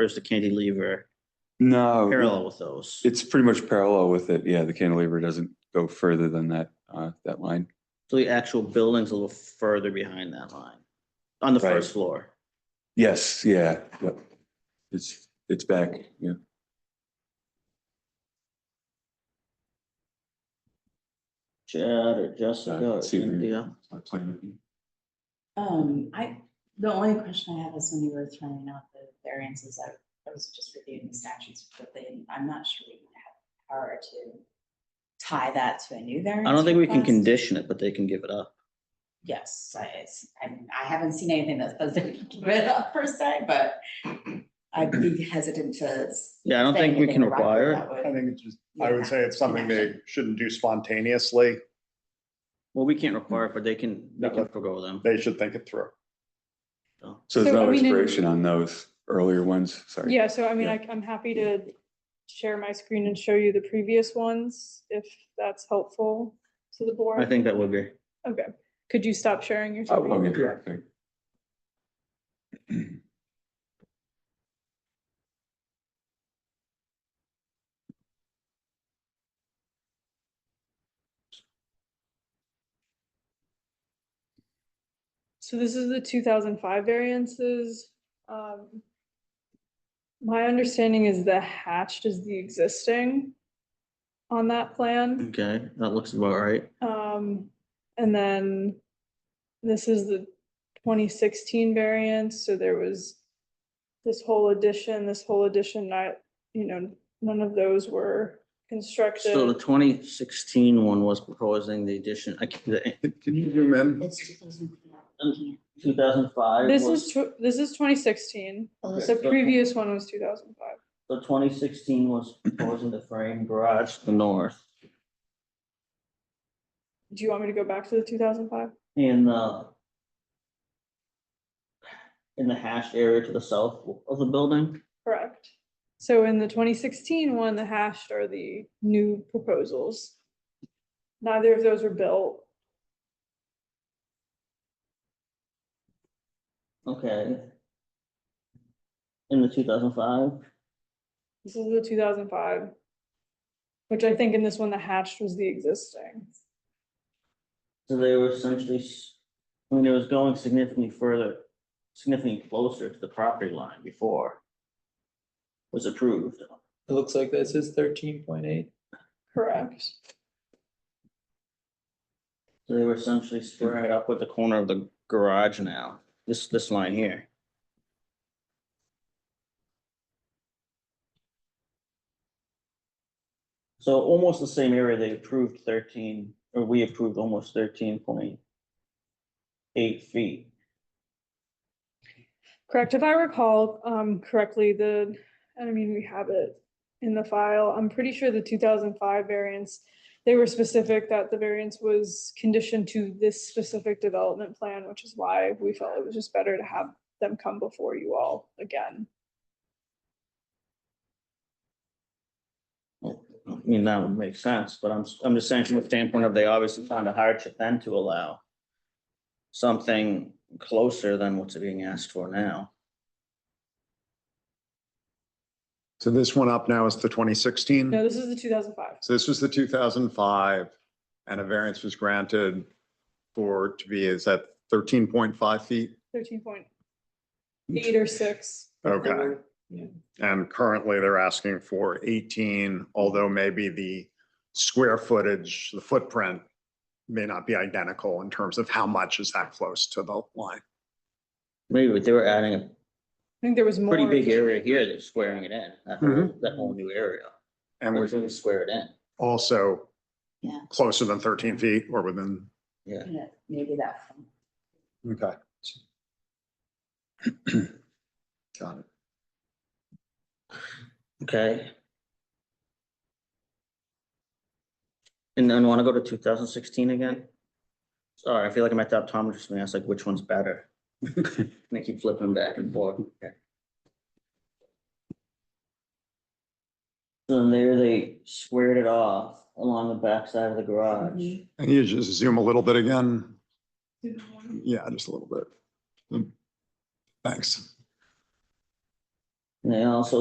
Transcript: Or is the cantilever No, Oh, parallel with those? it's pretty much parallel with it. Yeah, the cantilever doesn't go further than that, uh, that line. So the actual building's a little further behind that line, on the Right. first floor. Yes, yeah, yep. It's, it's back, yeah. Chad or Uh, Jessica or see if you- Cynthia? Um, I, the only question I have is when you were throwing out the variances, I, I was just reviewing the statutes, but they, I'm not sure we have the power to tie that to a new variance. I don't think we can request. condition it, but they can give it up. Yes, I, it's, I, mean, I haven't seen anything that says they can give it up per se, but I'd be hesitant to. s- Yeah, I don't say think we anything can about require that it. would- I think it's just, I Yeah. would say it's something they shouldn't do spontaneously. Well, we can't require it, but they can, they No. can forego them. They should think it through. So there's So, I no mean, in- expiration on those earlier ones, sorry. Yeah, so I mean, Yeah. I, I'm happy to share my screen and show you the previous ones, if that's helpful to the I board. think that would be. Okay, could you stop sharing your Oh, screen? okay, okay. So this is the two thousand five variances. Um, My understanding is the hatched is the existing on that plan. Okay, that looks about right. Um, and then this is the twenty sixteen variant, so there was this whole addition, this whole addition, not, you know, none of those were So the constructed. 2016 one was proposing the addition, I can't, Can you zoom in? It's 2000. two thousand five. This is, tw- this is twenty sixteen, Oh, the previous one was two thousand five. So twenty sixteen was proposing the frame garage to the north Do you want me to go back to the two thousand five? and the in the hash area to the south of the building. Correct. So in the twenty sixteen one, the hashed are the new proposals. Neither of those were built. Okay. In the two thousand five, This is the two thousand five. Which I think in this one, the hatched was the existing. so they were essentially, s- I mean, it was going significantly further, significantly closer to the property line before was approved. It looks like this is thirteen point eight. Correct. So they were essentially squared up with the corner of the garage now, this, this line here. So almost the same area they approved thirteen, or we approved almost thirteen point eight feet. Correct. If I recall um correctly, the, and I mean, we have it in the file. I'm pretty sure the two thousand five variance. They were specific that the variance was conditioned to this specific development plan, which is why we felt it was just better to have them come before you all again. I mean, that would make sense, but I'm, I'm just saying from the standpoint of they obviously found a hardship then to allow something closer than what's being asked for now. So this one up now is the twenty sixteen. No, this is the two thousand five. So this was the two thousand five and a variance was granted for, to be, is that thirteen point five feet? Thirteen point eight or six. Okay. Yeah. And currently they're asking for eighteen, although maybe the square footage, the footprint may not be identical in terms of how much is that close to the line. Maybe, but they were adding a I think there was more. pretty big area here that's squaring it in, that whole, that whole new area. And We're was gonna square it in. also Yeah. closer than thirteen feet or within. Yeah, Maybe that. one. Okay. Got it. Okay. And then wanna go to two thousand sixteen again? Sorry, I feel like I'm at the optometrist, and I ask like, which one's better? And I keep flipping back and forth. So there they squared it off along the backside of the garage. Mhm. And you just zoom a little bit again? It Yeah, just a little bit. Thanks. And they also